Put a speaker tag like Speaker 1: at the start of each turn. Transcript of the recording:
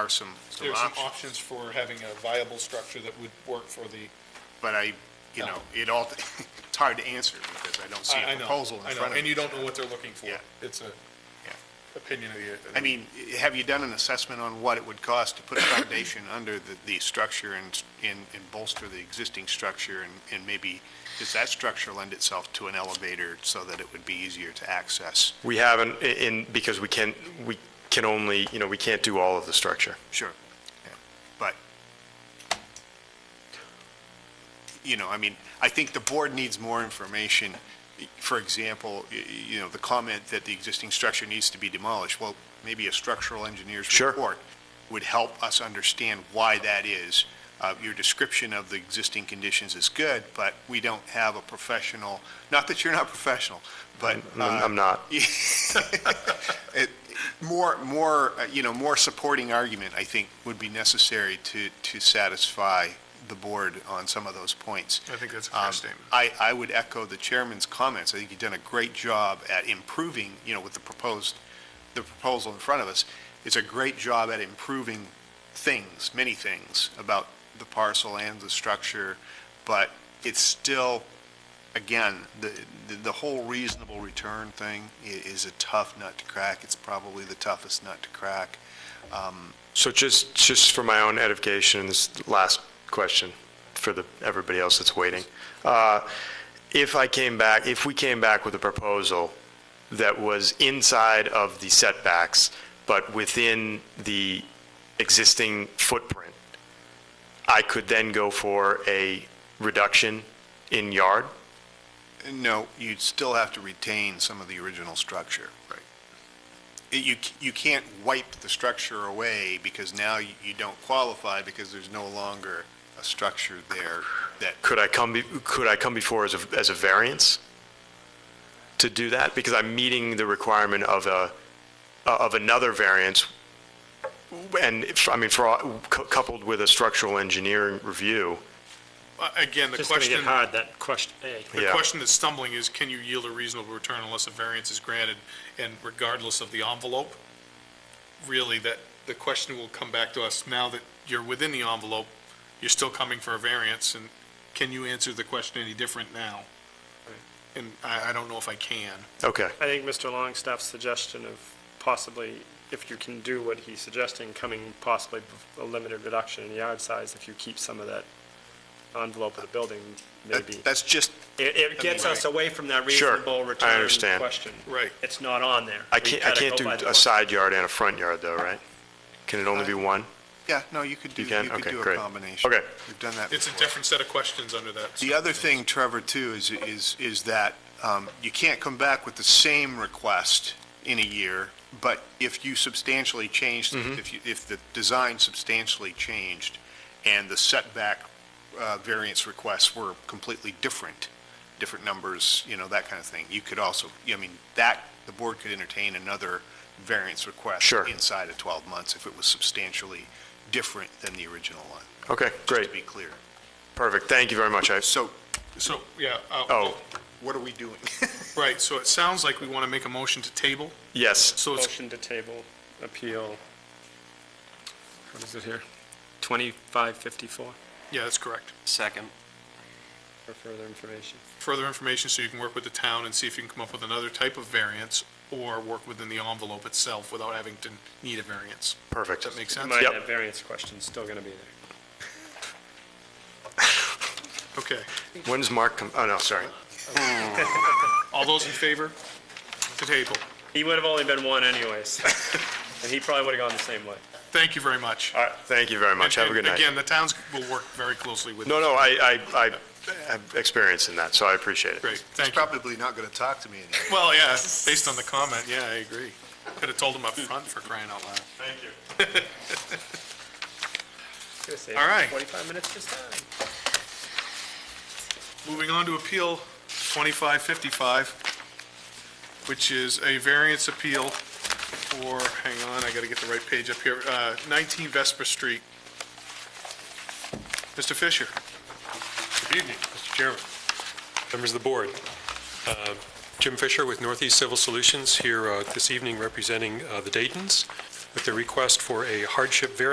Speaker 1: are some, some
Speaker 2: There are some
Speaker 1: options,
Speaker 2: options for having a viable structure that would work for the,
Speaker 1: but I, you know, it all, it's hard to answer because I don't see
Speaker 2: I I
Speaker 1: a
Speaker 2: know,
Speaker 1: proposal in
Speaker 2: I know,
Speaker 1: front of
Speaker 2: and
Speaker 1: me.
Speaker 2: you don't know what they're looking for.
Speaker 1: Yeah.
Speaker 2: It's a
Speaker 1: Yeah.
Speaker 2: opinion of the.
Speaker 1: I mean, have you done an assessment on what it would cost to put a foundation under the, the structure and, and and bolster the existing structure? And, and maybe, does that structure lend itself to an elevator so that it would be easier to access?
Speaker 3: We haven't, i- in, because we can, we can only, you know, we can't do all of the structure.
Speaker 1: Sure. Yeah. But, you know, I mean, I think the board needs more information. For example, y- y- you know, the comment that the existing structure needs to be demolished, well, maybe a structural engineer's
Speaker 3: Sure.
Speaker 1: report would help us understand why that is. Uh, Your description of the existing conditions is good, but we don't have a professional, not that you're not professional, but.
Speaker 3: I'm-
Speaker 1: uh,
Speaker 3: I'm not.
Speaker 1: it- More, more, uh, you know, more supporting argument, I think, would be necessary to, to satisfy the board on some of those points.
Speaker 2: I think that's a
Speaker 1: Um, I, I would echo the chairman's comments. I think you've done a great job at improving, you know, with the proposed, the proposal in front of us. It's a great job at improving things, many things, about the parcel and the structure, but it's still, again, the, the- the whole reasonable return thing i- is a tough nut to crack. It's probably the toughest nut to crack. Um,
Speaker 3: So just, just for my own edification, this last question for the, everybody else that's waiting. Uh, If I came back, if we came back with a proposal that was inside of the setbacks, but within the existing footprint, I could then go for a reduction in yard?
Speaker 1: No, you'd still have to retain some of the original structure. Right. You, c- you can't wipe the structure away because now you you don't qualify because there's no longer a structure there that,
Speaker 3: Could I come, be- could I come before as a, as a variance to do that? Because I'm meeting the requirement of a, uh, of another variance, and, if- I mean, for, all- cou- coupled with a structural engineering review,
Speaker 2: Again, the
Speaker 4: Just gonna get
Speaker 2: question,
Speaker 4: hard, that question, hey.
Speaker 2: the
Speaker 3: Yeah.
Speaker 2: question that's stumbling is, can you yield a reasonable return unless a variance is granted? And regardless of the envelope, really, that, the question will come back to us now that you're within the envelope, you're still coming for a variance, and can you answer the question any different now? And I, I don't know if I can.
Speaker 3: okay,
Speaker 4: I think Mr. Longstaff's suggestion of possibly, if you can do what he's suggesting, coming possibly with a limited reduction in yard size, if you keep some of that envelope of the building, maybe.
Speaker 1: that- that's just,
Speaker 4: It, it gets us away from that
Speaker 3: Sure, I
Speaker 4: reasonable return
Speaker 3: understand.
Speaker 4: question.
Speaker 2: Right.
Speaker 4: It's not on there.
Speaker 3: I
Speaker 4: We
Speaker 3: can't, I
Speaker 4: gotta
Speaker 3: can't
Speaker 4: go
Speaker 3: do
Speaker 4: by the
Speaker 3: a
Speaker 4: book.
Speaker 3: side yard and a front yard, though, right? Can it only be one?
Speaker 1: yeah, no, you could do,
Speaker 3: You
Speaker 1: you
Speaker 3: can?
Speaker 1: could
Speaker 3: Okay,
Speaker 1: do a
Speaker 3: great.
Speaker 1: combination.
Speaker 3: Okay.
Speaker 1: We've done that
Speaker 2: It's a
Speaker 1: before.
Speaker 2: different set of questions under that.
Speaker 1: The other thing, Trevor, too, is, is, is that um, you can't come back with the same request in a year, but if you substantially changed,
Speaker 3: Mm-hmm.
Speaker 1: if you, if the design substantially changed and the setback uh, variance requests were completely different, different numbers, you know, that kind of thing, you could also, I mean, that, the board could entertain another variance request
Speaker 3: Sure.
Speaker 1: inside of 12 months if it was substantially different than the original one,
Speaker 3: Okay,
Speaker 1: just
Speaker 3: great,
Speaker 1: to be clear.
Speaker 3: perfect, thank you very much, I,
Speaker 1: So
Speaker 2: So, yeah. uh,
Speaker 3: oh,
Speaker 1: what are we doing?
Speaker 2: Right, so it sounds like we want to make a motion to table,
Speaker 3: yes,
Speaker 2: so it's
Speaker 4: Motion to table, appeal, what is it here? 2554
Speaker 2: Yeah, that's correct.
Speaker 5: Second.
Speaker 4: for further information.
Speaker 2: Further information, so you can work with the town and see if you can come up with another type of variance or work within the envelope itself without having to need a variance.
Speaker 3: perfect.
Speaker 2: Does that make sense?
Speaker 4: Mind
Speaker 3: Yep.
Speaker 4: that variance question's still going to be there.
Speaker 2: Okay.
Speaker 3: When's Mark come, oh, no, sorry.
Speaker 2: All those in favor? To table.
Speaker 4: He would have only been one anyways, and he probably would have gone the same way.
Speaker 2: Thank you very much.
Speaker 3: All right, thank you very much, have a good
Speaker 2: And- and
Speaker 3: night.
Speaker 2: Again, the towns will work very closely with you.
Speaker 3: No, no, I, I, I have experience in that, so I appreciate it.
Speaker 2: Great,
Speaker 1: He's
Speaker 2: thank you.
Speaker 1: probably not going to talk to me anymore.
Speaker 2: Well, yeah, based on the comment, yeah, I agree. Could have told him up front for crying out loud.
Speaker 3: Thank you.
Speaker 2: All right.
Speaker 4: 45 minutes this time.
Speaker 2: Moving on to Appeal 2555, which is a variance appeal for, hang on, I got to get the right page up here, uh, 19 Vesper Street. Mr. Fisher?
Speaker 6: Good evening, Mr. Chairman, members of the board. Uh, Jim Fisher with Northeast Civil Solutions here uh, this evening representing uh, the Daytons with their request for a hardship variance